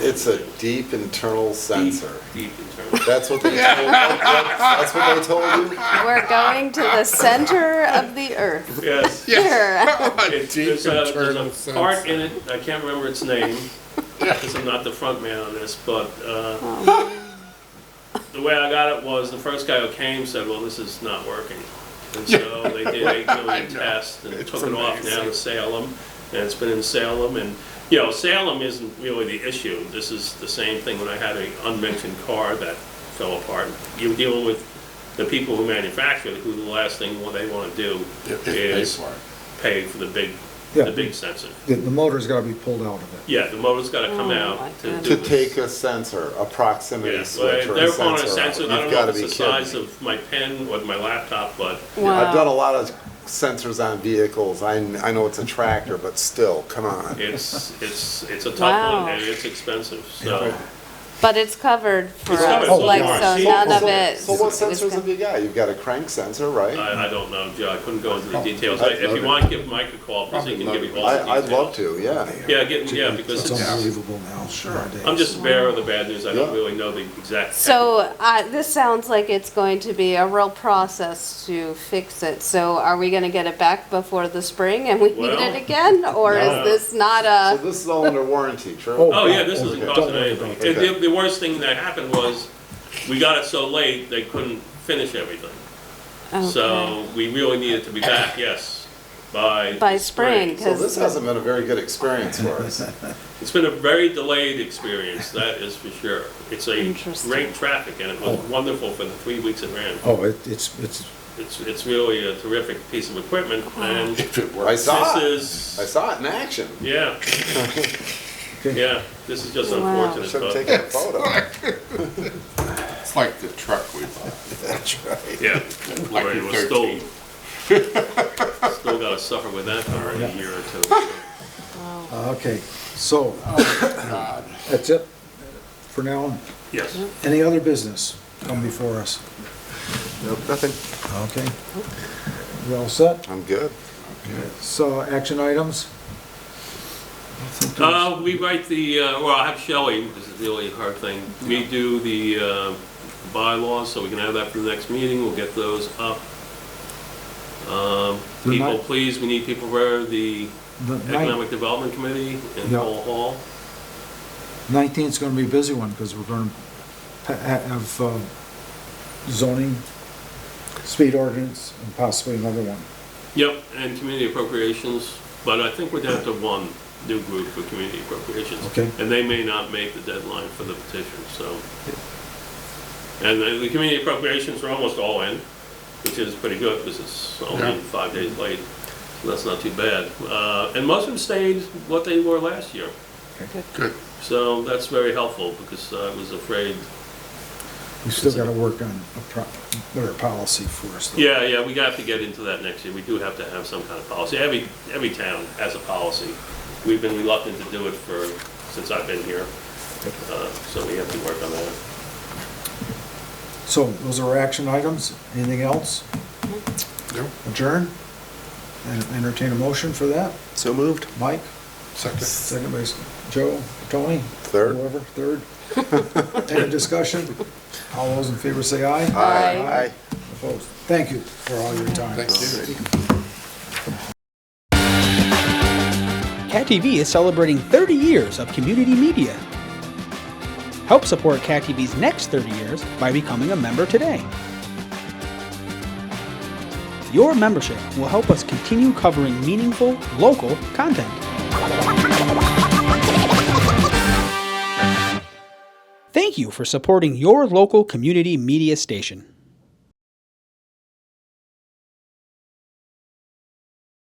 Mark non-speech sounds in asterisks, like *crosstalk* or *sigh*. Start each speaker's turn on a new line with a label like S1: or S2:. S1: it's a deep internal sensor.
S2: Deep internal.
S1: That's
S2: *laughs*
S1: what they told, that's what they told you?
S3: We're going to the center of the earth.
S2: Yes.
S3: Here.
S2: It's-
S4: Deep
S2: There's a, there's
S4: internal
S2: a
S4: sense.
S2: part in it, I can't remember its name,
S4: *laughs*
S2: because I'm not the front man on this, but, uh,
S4: *laughs*
S2: the way I got it was, the first guy who came said, well, this is not working. And so they did
S4: *laughs*
S2: eight
S4: I
S2: million
S4: know.
S2: tests and
S4: It's
S2: took it off down
S4: amazing.
S2: to Salem, and it's been in Salem, and, you know, Salem isn't really the issue. This is the same thing when I had a unmentioned car that fell apart. You're dealing with the people who manufacture it, who the last thing what they wanna do
S4: If- if they
S2: is
S4: for it.
S2: pay for the big,
S5: Yeah.
S2: the big sensor.
S5: The, the motor's gotta be pulled out of it.
S2: Yeah, the motor's gotta come
S3: Oh,
S2: out
S3: my
S2: to
S3: God.
S2: do
S1: To
S2: this.
S1: take a sensor, a proximity
S2: Yeah,
S1: switch or
S2: well,
S1: a
S2: they're on
S1: sensor.
S2: a sensor, I
S1: out.
S2: don't
S1: You've
S2: know
S1: got
S2: if
S1: to be
S2: it's the size
S1: kidding. me.
S2: of my pen or my laptop, but
S1: I've done a
S3: Wow.
S1: lot of sensors on vehicles. I, kn- I know it's a tractor, but still, come on.
S2: it's, it's, it's a tough
S3: Wow.
S2: one, and it's expensive, so.
S3: *laughs* But it's covered for
S2: It's covered,
S3: us,
S2: so
S3: like,
S2: far.
S3: so
S2: See?
S3: none of
S1: So-
S3: it.
S1: So what
S3: was
S1: sensors have
S3: con-
S1: you got? You've got a crank sensor, right?
S2: I, I don't know, Joe, I couldn't go into the
S1: Oh,
S2: details,
S1: I'd
S2: I- if
S1: love
S2: you
S1: it.
S2: want, give Mike a call, because he can give you all the
S1: I,
S2: details.
S1: I'd love to, yeah.
S2: Yeah, get, yeah, because
S5: It's
S2: it's,
S5: unbelievable now. Sure.
S2: I'm just a bearer of the bad news, I don't
S1: Yeah.
S2: really know the exact.
S3: So, uh, this sounds like it's going to be a real process to fix it. So are we gonna get it back before the spring and we need
S2: Well,
S3: it again? Or
S2: no.
S3: is this not
S1: So
S3: a,
S1: this is all under warranty,
S5: Oh.
S1: true?
S2: Oh, yeah, this
S5: Okay.
S2: isn't
S1: Don't
S2: costing
S5: worry
S2: anything.
S1: about it.
S2: And the, the worst thing that happened was, we got it so late, they couldn't finish everything.
S3: okay.
S2: So we really needed to be back, yes, by.
S3: By spring,
S1: So this
S3: cause,
S1: hasn't been a very good experience for
S2: *laughs*
S1: us.
S2: It's been a very delayed experience, that is for sure. It's a
S3: Interesting.
S2: great traffic and it was wonderful for the three weeks it ran.
S5: Oh, it, it's, it's,
S2: It's, it's really a terrific piece of equipment and
S4: If it
S1: I
S4: works.
S1: saw it.
S2: this
S1: I
S2: is,
S1: saw it in action.
S5: *laughs*
S2: yeah. Yeah, this is just
S3: Wow.
S1: I
S2: unfortunate,
S1: should have
S2: but,
S1: taken a photo.
S4: *laughs* It's like the truck we bought,
S1: That's right.
S2: yeah.
S4: like
S2: Right,
S4: the
S2: it was still,
S4: 13.
S2: *laughs* still gotta suffer with that for a year or two.
S5: uh, okay, so,
S4: God.
S5: that's it for now.
S2: Yes.
S5: Any other business come before us?
S1: Nope, nothing.
S5: Okay. We all set?
S1: I'm good.
S5: So, action items?
S2: Uh, we write the, uh, well, I have Shelley, this is the only hard thing. We do the, uh, bylaws, so we can have that for the next meeting, we'll get those up. Um,
S5: The
S2: people,
S5: night-
S2: please, we need people for the
S5: The
S2: Economic Development Committee in
S5: Yeah.
S2: Cole Hall.
S5: nineteenth's gonna be a busy one, because we're gonna pa- ha- have uh, zoning, speed ordinance, and possibly another one.
S2: Yep, and community appropriations, but I think we're down to one new group for community appropriations.
S5: Okay.
S2: And they may not make the deadline for the petition, so. And the the community appropriations are almost all in, which is pretty good, because it's
S4: Yeah.
S2: only five days late, so that's not too bad. Uh, And most of them stayed what they were last year,
S4: Good.
S2: so that's very helpful, because I was afraid
S5: We still gotta work on a pro- better policy for us. though.
S2: Yeah, yeah, we have to get into that next year. We do have to have some kind of policy. Every, every town has a policy. We've been reluctant to do it for, since I've been here. Uh, So we have to work on that.
S5: So, those are our action items, anything else?
S4: Nope.
S5: Adjourn? And entertain a motion for that?
S1: So moved.
S5: Mike,
S4: Second.
S5: second base, Joe, Tony?
S1: Third.
S5: Whoever, third. Any discussion? All those in favor say aye.
S3: Aye.
S1: Aye.
S5: Opposed? Thank you for all your time.
S4: Thank you.
S6: Cat TV is celebrating 30 years of community media. Help support Cat TV's next 30 years by becoming a member today. Your membership will help us continue covering meaningful, local content. Thank you for supporting your local community media station.